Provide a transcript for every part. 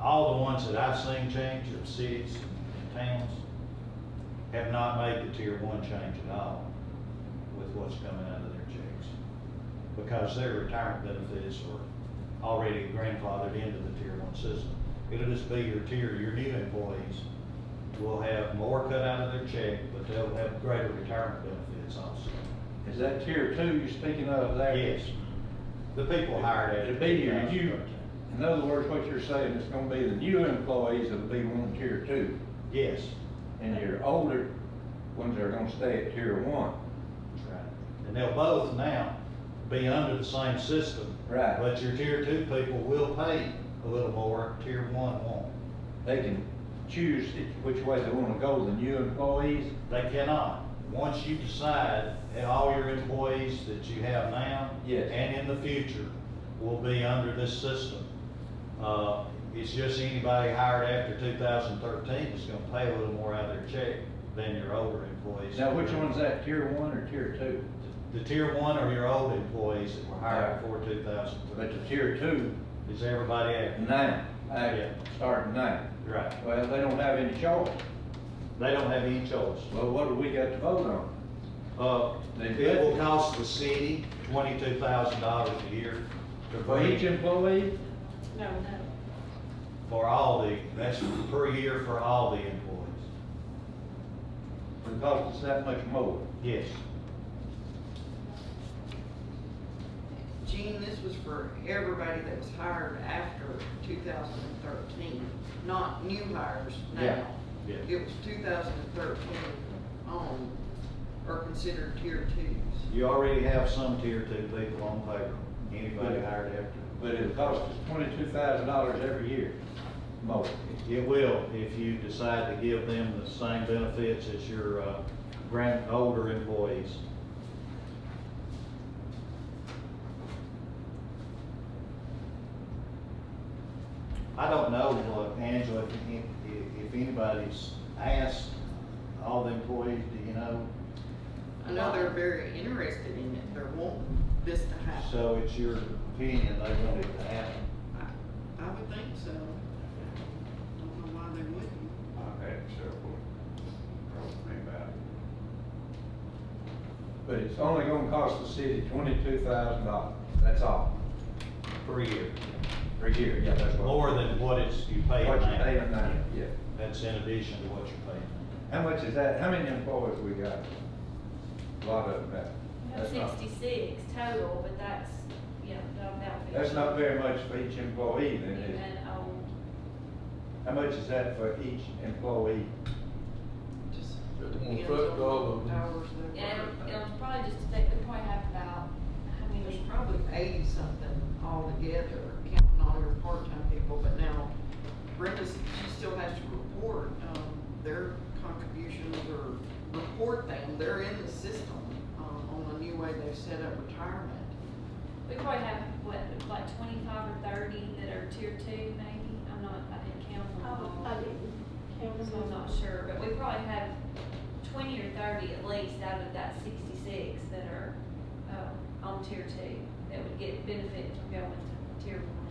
all the ones that I've seen change of cities and towns have not made the tier one change at all with what's coming out of their checks. Because their retirement benefits are already grandfathered into the tier one system. It'll just be your tier, your new employees will have more cut out of their check, but they'll have greater retirement benefits also. Is that tier two you're speaking of there? Yes, the people hired at. It'd be your you, in other words, what you're saying, it's gonna be the new employees that'll be one tier two, Yes, and your older ones are gonna stay at tier one. that's right. And they'll both now be under the same system. Right. But your tier two people will pay a little more, tier one won't. They can choose which way they wanna go, the new employees, They cannot. Once you decide, that all your employees that you have now. Yes. And in the future will be under this system. Uh, it's just anybody hired after two thousand thirteen is gonna pay a little more out of their check than your older employees. Now, which one's that, tier one or tier two? The tier one are your old employees that were hired before two thousand But thirteen. the tier two, Is everybody after? now, Yeah. act- starting now. Right. Well, they don't have any choice. They don't have any choice. Well, what do we got to vote on? Uh, They- it will cost the city twenty-two thousand dollars a year to For each bring employee? No, no. For all the, that's per year for all the employees. It costs us that much more. Yes. Gene, this was for everybody that was hired after two thousand and thirteen, not new hires Yeah, now. yeah. It was two thousand and thirteen on, are considered tier twos. You already have some tier two people on payroll, anybody hired after. But it costs us twenty-two thousand dollars every year, more. It will, if you decide to give them the same benefits as your, uh, grand, older employees. I don't know, uh, Angela, if, if- if anybody's asked all the employees, do you know? I know they're very interested in it, they're wanting this to happen. So it's your opinion, they want it to happen. I I would think so. Don't know why they wouldn't. I've had several approach me about it. But it's only gonna cost the city twenty-two thousand dollars, that's all, Per year. per year, yeah, that's what. More than what it's, you pay now. What you pay now, yeah. That's in addition to what you pay now. How much is that, how many employees we got? A lot of them, We have that's not, sixty-six total, but that's, you know, not about. that's not very much for each employee, then, New is it? and old. How much is that for each employee? Just Just one depends foot on dog what and- hours they Yeah, work. it'll, it'll probably just affect, we probably have about, I mean, There's probably eighty something altogether, counting all your part-time people, but now Brenda, she still has to report, um, their contributions or report them, they're in the system, um, on the new way they've set up retirement. we probably have, what, like twenty-five or thirty that are tier two maybe? I'm not, I didn't count them all. I didn't count So them I'm all. not sure, but we probably have twenty or thirty at least out of that sixty-six that are, uh, on tier two, that would get benefit from going to tier one.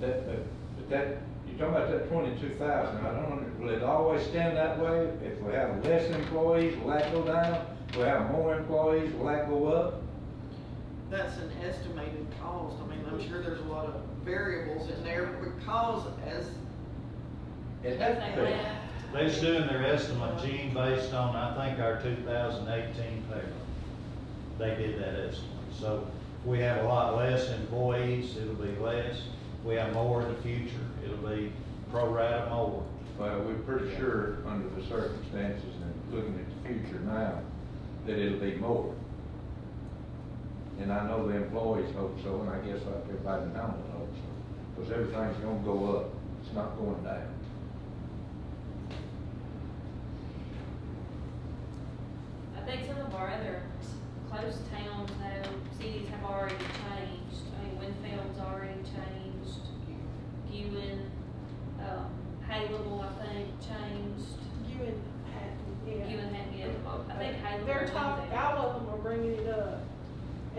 That, but, but that, you're talking about that twenty-two thousand, I don't, under- will it always stand that way? If we have less employees, will that go down? If we have more employees, will that go up? That's an estimated cost, I mean, I'm sure there's a lot of variables in there, because as It has to Like be. that. They're just doing their estimate, Gene, based on, I think, our two thousand eighteen payroll. They did that estimate. So if we have a lot less employees, it'll be less. If we have more in the future, it'll be pro rata more. Well, we're pretty sure, under the circumstances and looking at the future now, that it'll be more. And I know the employees hope so, and I guess like everybody in Hamlin hopes so, because everything's gonna go up, it's not going down. I think some of our other um,